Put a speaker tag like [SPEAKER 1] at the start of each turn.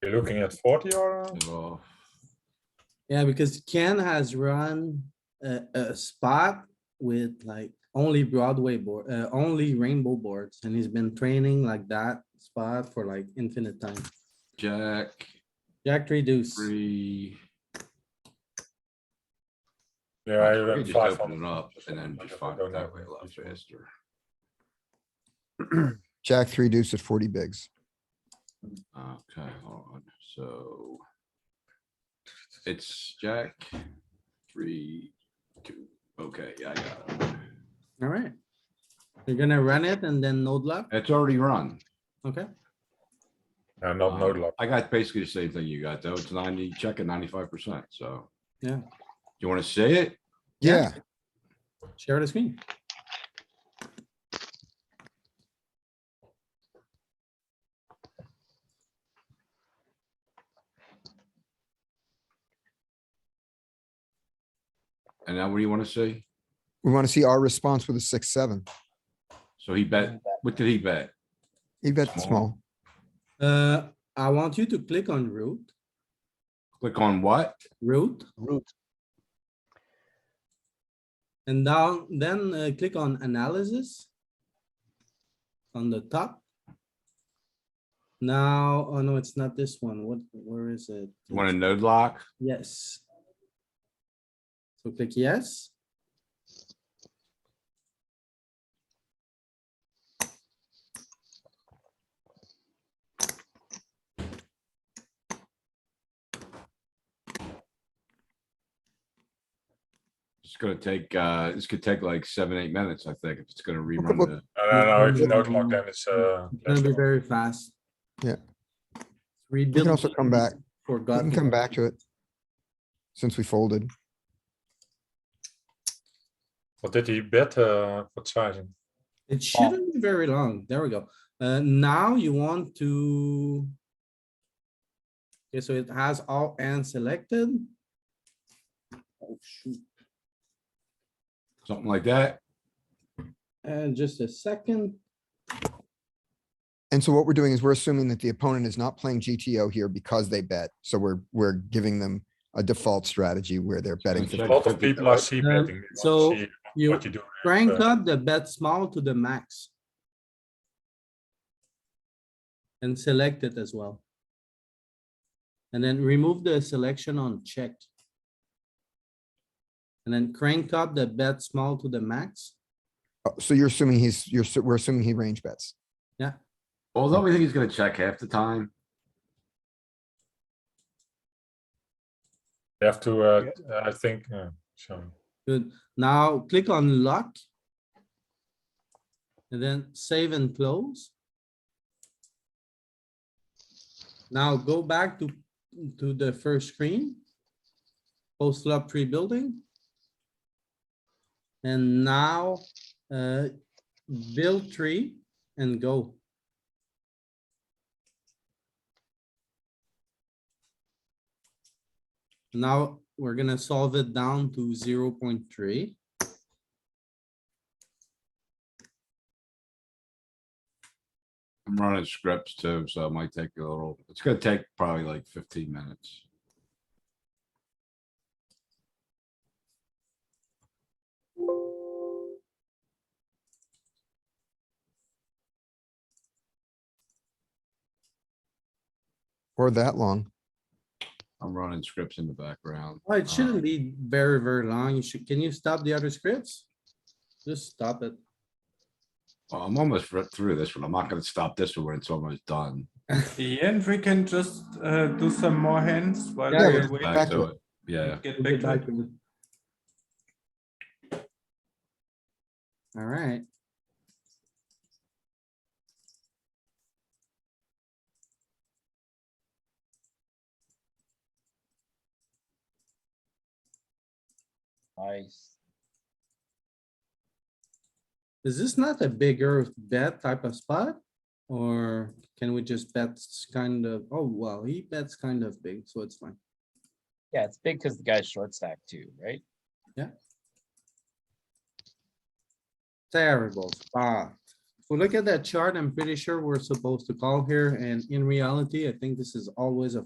[SPEAKER 1] You're looking at forty or? uh,
[SPEAKER 2] Oh,
[SPEAKER 3] Yeah, because Ken has run a, a spot with like only Broadway board, uh, only rainbow boards, and he's been training like that spot for like infinite time.
[SPEAKER 2] Jack,
[SPEAKER 3] Jack three deuce,
[SPEAKER 2] three.
[SPEAKER 1] Yeah, I
[SPEAKER 2] You
[SPEAKER 1] ran
[SPEAKER 2] just
[SPEAKER 1] five
[SPEAKER 2] open
[SPEAKER 1] on-
[SPEAKER 2] it up and then just find
[SPEAKER 1] Don't
[SPEAKER 2] it that
[SPEAKER 1] know.
[SPEAKER 2] way a lot faster.
[SPEAKER 4] Jack three deuce at forty bigs.
[SPEAKER 2] Okay, hold on, so. It's Jack, three, two, okay, yeah, I got it.
[SPEAKER 3] alright. You're gonna run it and then node luck,
[SPEAKER 2] It's already run.
[SPEAKER 3] okay?
[SPEAKER 1] Yeah, not no
[SPEAKER 2] Um,
[SPEAKER 1] luck.
[SPEAKER 2] I got basically the same thing you got, though. It's ninety, check at ninety-five percent, so.
[SPEAKER 3] Yeah.
[SPEAKER 2] You wanna see it?
[SPEAKER 4] Yeah,
[SPEAKER 3] Share the screen.
[SPEAKER 2] And now what do you wanna see?
[SPEAKER 4] we want to see our response with a six, seven.
[SPEAKER 2] So he bet, what did he bet?
[SPEAKER 4] He bet the
[SPEAKER 2] Small.
[SPEAKER 4] small.
[SPEAKER 3] Uh, I want you to click on root,
[SPEAKER 2] Click on what?
[SPEAKER 3] root,
[SPEAKER 5] Root.
[SPEAKER 3] and down, then uh, click on analysis. On the top. Now, oh no, it's not this one. What, where is it?
[SPEAKER 2] You want a node lock?
[SPEAKER 3] Yes. So click yes.
[SPEAKER 2] It's gonna take, uh, this could take like seven, eight minutes, I think, if it's gonna rerun
[SPEAKER 4] look.
[SPEAKER 2] the,
[SPEAKER 1] No, no, no, if you
[SPEAKER 3] Mm.
[SPEAKER 1] don't lock, then it's, uh.
[SPEAKER 3] It's gonna
[SPEAKER 1] left
[SPEAKER 3] be
[SPEAKER 1] off.
[SPEAKER 3] very fast.
[SPEAKER 4] Yeah.
[SPEAKER 3] We
[SPEAKER 4] We can also come back. We can come back to it. Since we folded,
[SPEAKER 1] What did he bet, uh, for sizing?
[SPEAKER 3] It shouldn't be very long. There we go. Uh, now you want to. Okay, so it has all and selected. Oh, shoot.
[SPEAKER 2] something like that.
[SPEAKER 3] And just a second.
[SPEAKER 4] and so what we're doing is we're assuming that the opponent is not playing GTO here because they bet. So we're, we're giving them a default strategy where they're betting.
[SPEAKER 2] check.
[SPEAKER 1] A
[SPEAKER 4] 50.
[SPEAKER 1] lot of people are see
[SPEAKER 3] Um,
[SPEAKER 1] betting. They
[SPEAKER 3] so
[SPEAKER 1] want to see
[SPEAKER 3] You
[SPEAKER 1] What you do.
[SPEAKER 3] crank
[SPEAKER 1] uh,
[SPEAKER 3] up the bet small to the max. And select it as well. And then remove the selection on check. And then crank up the bet small to the max.
[SPEAKER 4] Oh, So you're assuming he's, you're, assu- we're assuming he range bets.
[SPEAKER 2] Although we think he's gonna check half the time.
[SPEAKER 1] They have to, uh, I think, uh, so.
[SPEAKER 3] Good. Now click on lock. And then save and close. Now go back to, to the first screen. Post flop pre-building. And now, uh, build tree and go. Now, we're gonna solve it down to zero point three.
[SPEAKER 2] I'm running scripts too, so it might take a little, it's gonna take probably like fifteen minutes.
[SPEAKER 4] Or that long.
[SPEAKER 2] I'm running scripts in the background.
[SPEAKER 3] Well,
[SPEAKER 2] Uh,
[SPEAKER 3] it shouldn't be very, very long. You should, can you stop the other scripts? Just stop it.
[SPEAKER 2] well, I'm almost re- through this one. I'm not gonna stop this one when it's almost done.
[SPEAKER 6] Yeah, and we can just uh, do some more hands while
[SPEAKER 3] Yeah,
[SPEAKER 6] we
[SPEAKER 3] yeah.
[SPEAKER 6] wait.
[SPEAKER 2] Back
[SPEAKER 4] to
[SPEAKER 2] to it, yeah.
[SPEAKER 6] Get back to it.
[SPEAKER 3] Alright.
[SPEAKER 5] Nice.
[SPEAKER 3] Is this not a bigger bet type of spot? Or can we just bet s- kind of, oh, well, he bets kind of big, so it's fine.
[SPEAKER 5] Yeah, it's big because the guy's short stack too, right?
[SPEAKER 3] Terrible spot. If we look at that chart, I'm pretty sure we're supposed to call here, and in reality, I think this is always a